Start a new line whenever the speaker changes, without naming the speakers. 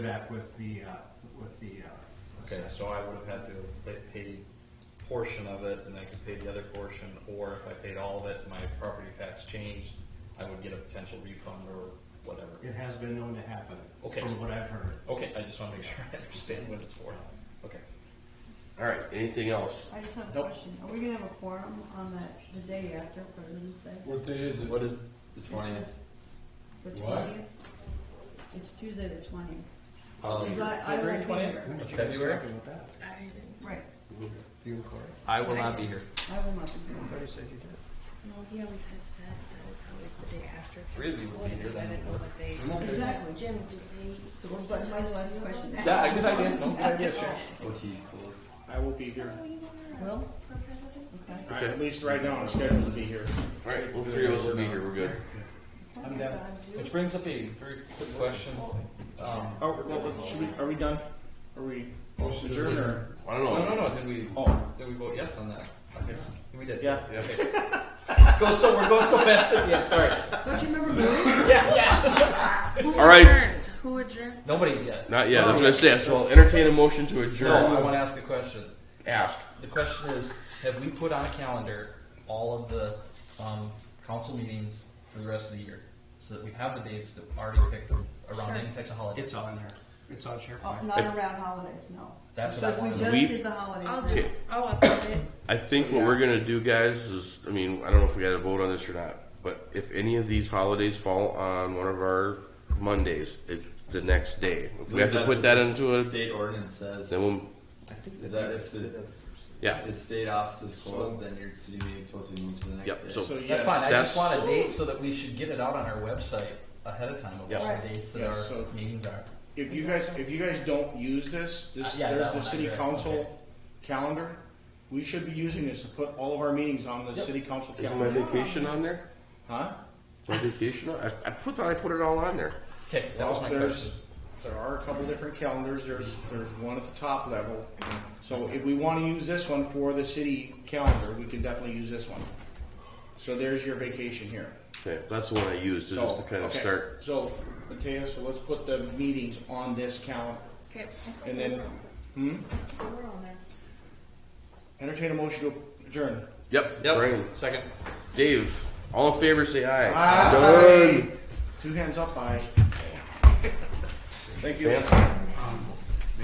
that with the, uh, with the uh,
Okay,
assessor.
so I would have had to like, pay portion of it and I could pay the other portion, or if I paid all of it, my property tax changed, I would get a potential refund or whatever.
It has been known to happen,
Okay.
from what I've heard.
Okay, I just wanna make sure I understand what it's for. Okay.
All right, anything else?
I just have a
Nope.
question. Are we gonna have a quorum on that, the day after President's Day?
What day is it?
What is the
It's the-
twentieth?
The
What?
twentieth? It's Tuesday the twentieth.
Oh,
February 20th?
did you guys February? talk
about that?
Right,
You and Corey?
I will not be here.
I will not be here.
Corey said you did.
No, he always has said that it's always the day after.
Three of you will be here then.
I don't know what they.
Exactly.
Jim, do they?
So we'll- But might as well ask the question now.
Yeah, good idea, no, good idea, sure.
OT's closed.
I will be here.
Oh, you are.
Will?
For president?
Okay.
I- At least right now, I'm scheduled to be here.
All right, well, three of us will be here, we're good.
I'm done.
Which brings up a very quick question. Um,
Oh, well, well, should we, are we done? Are we adjourned or?
I don't
no, no,
know.
no, did we,
Oh.
did we vote yes on that? I guess we did.
Yeah.
Okay. Go so, we're going so fast, yeah, sorry.
Don't you remember voting?
All right.
Who adjourned?
Nobody yet.
Not yet, that's what I said, so I'll entertain a motion to
No, I wanna
adjourn.
ask a question.
Ask.
The question is, have we put on a calendar all of the um, council meetings for the rest of the year? So that we have the dates that already picked around any types of holidays?
It's on there. It's on
Oh,
SharePoint.
not around holidays, no.
That's what I wanted to-
Because we
We-
just did the
I'll
holidays.
do,
Okay.
I'll upload it.
I think what we're gonna do, guys, is, I mean, I don't know if we gotta vote on this or not, but if any of these holidays fall on one of our Mondays, it's the next day. If we have to
That's
put
what
that
the
into a,
State ordinance says,
then we'll,
is that if the,
yeah,
if the state office is closed, then your city meeting is supposed to be moved to the next
Yep,
day.
so-
So yes.
That's fine, I
That's-
just want a date so that we should get it out on our website ahead of time of
Yeah.
all the dates that
Yeah,
our
so-
meetings are.
If you guys, if you guys don't use this,
Uh,
this,
yeah,
there's
that
the
one I
city
read. Okay.
council calendar. We should be using this to put all of our meetings on the city council
is my
calendar.
vacation on there?
Huh?
My vacation, on- I, I put- thought I put it all on there.
Okay, that was
Well,
my question.
there's, there are a couple different calendars, there's, there's one at the top level. So if we wanna use this one for the city calendar, we can definitely use this one. So there's your vacation here.
Okay, that's the one I used, is just
So,
to kind of
okay.
start.
So, Matea, so let's put the meetings on this calendar,
Okay.
and then
We're on there.
entertain a motion to adjourn.
Yep, bring 'em.
Second.
Dave, all in favor, say aye.
Aye. Two hands up, aye. Thank you.
Fantastic.